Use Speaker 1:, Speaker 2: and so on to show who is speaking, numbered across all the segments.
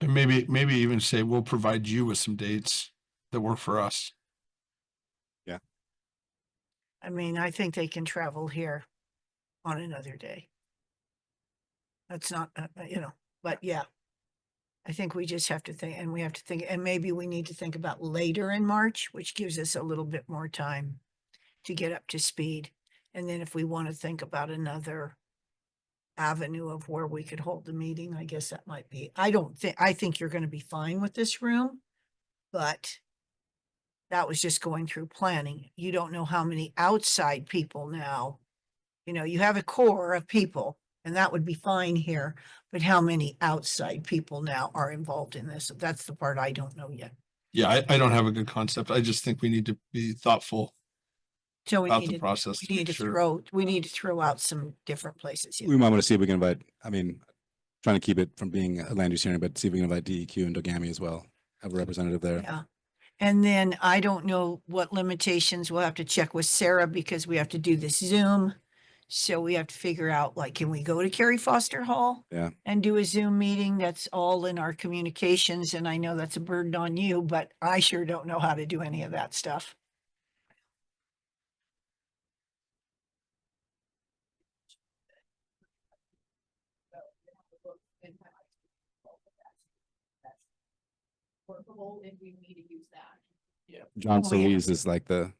Speaker 1: And maybe, maybe even say, we'll provide you with some dates that work for us.
Speaker 2: I mean, I think they can travel here on another day. That's not, uh, uh, you know, but yeah. I think we just have to think, and we have to think, and maybe we need to think about later in March, which gives us a little bit more time to get up to speed. And then if we want to think about another avenue of where we could hold the meeting, I guess that might be, I don't think, I think you're going to be fine with this room. But that was just going through planning. You don't know how many outside people now. You know, you have a core of people and that would be fine here, but how many outside people now are involved in this? That's the part I don't know yet.
Speaker 1: Yeah, I, I don't have a good concept. I just think we need to be thoughtful
Speaker 2: So we
Speaker 1: about
Speaker 2: need
Speaker 1: the
Speaker 2: to,
Speaker 1: process.
Speaker 2: we
Speaker 1: make
Speaker 2: need to
Speaker 1: sure-
Speaker 2: throw, we need to throw out some different places. yeah.
Speaker 3: We might want to see if we can invite, I mean, trying to keep it from being a land use hearing, but see if we can invite DEQ and Dogami as well, have a representative there.
Speaker 2: Yeah. And then I don't know what limitations we'll have to check with Sarah because we have to do this Zoom. So we have to figure out, like, can we go to Carrie Foster Hall?
Speaker 3: Yeah.
Speaker 2: And do a Zoom meeting? That's all in our communications. And I know that's a burden on you, but I sure don't know how to do any of that stuff.
Speaker 4: workable if we need to use that.
Speaker 3: John
Speaker 2: Oh, yeah.
Speaker 3: Solis is like the,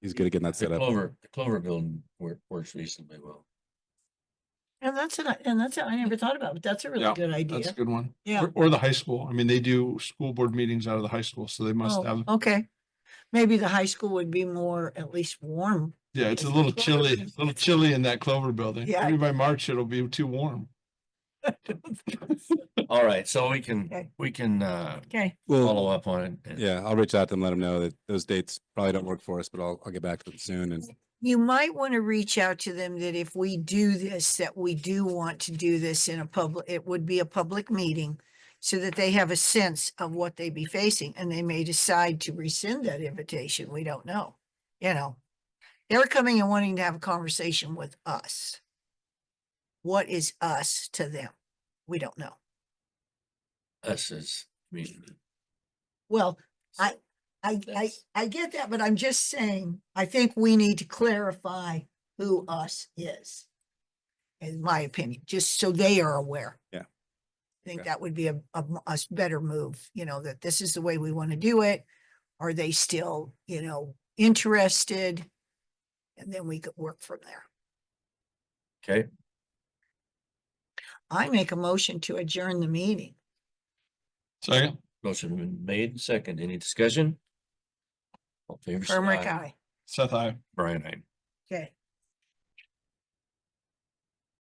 Speaker 3: he's good at getting that
Speaker 5: The
Speaker 3: set up.
Speaker 5: Clover, the Clover building wor- works reasonably well.
Speaker 2: And that's, an- and that's, I never thought about, but that's a really
Speaker 1: Yeah,
Speaker 2: good
Speaker 1: That's a
Speaker 2: idea.
Speaker 1: good one.
Speaker 2: Yeah.
Speaker 1: Or- Or the high school. I mean, they do school board meetings out of the high school, so they must
Speaker 2: Oh,
Speaker 1: have,
Speaker 2: okay. Maybe the high school would be more, at least warm.
Speaker 1: yeah, it's a
Speaker 2: it's
Speaker 1: little
Speaker 2: Clover
Speaker 1: chilly,
Speaker 2: building.
Speaker 1: a little chilly in that Clover building.
Speaker 2: Yeah.
Speaker 1: Maybe by March, it'll be too warm.
Speaker 5: All right, so we can,
Speaker 2: Okay.
Speaker 5: we can uh
Speaker 2: Okay.
Speaker 5: follow
Speaker 3: Well,
Speaker 5: up on it. and-
Speaker 3: yeah, I'll reach out to them, let them know that those dates probably don't work for us, but I'll, I'll get back to them soon and
Speaker 2: you might want to reach out to them that if we do this, that we do want to do this in a public, it would be a public meeting so that they have a sense of what they be facing and they may decide to rescind that invitation. We don't know. You know, they're coming and wanting to have a conversation with us. What is us to them? We don't know.
Speaker 5: Us as community.
Speaker 2: Well, I, I, I,
Speaker 5: That's-
Speaker 2: I get that, but I'm just saying, I think we need to clarify who us is. In my opinion, just so they are aware.
Speaker 3: Yeah.
Speaker 2: I think
Speaker 3: Okay.
Speaker 2: that would be a, a, m- a s- better move, you know, that this is the way we want to do it. Are they still, you know, interested? And then we could work from there.
Speaker 5: Okay,
Speaker 2: I make a motion to adjourn the meeting.
Speaker 1: Second,
Speaker 5: motion been made and second. Any discussion? All in favor say
Speaker 2: Irma,
Speaker 5: aye.
Speaker 2: aye.
Speaker 1: Seth, I.
Speaker 5: Brian, I.
Speaker 2: Okay.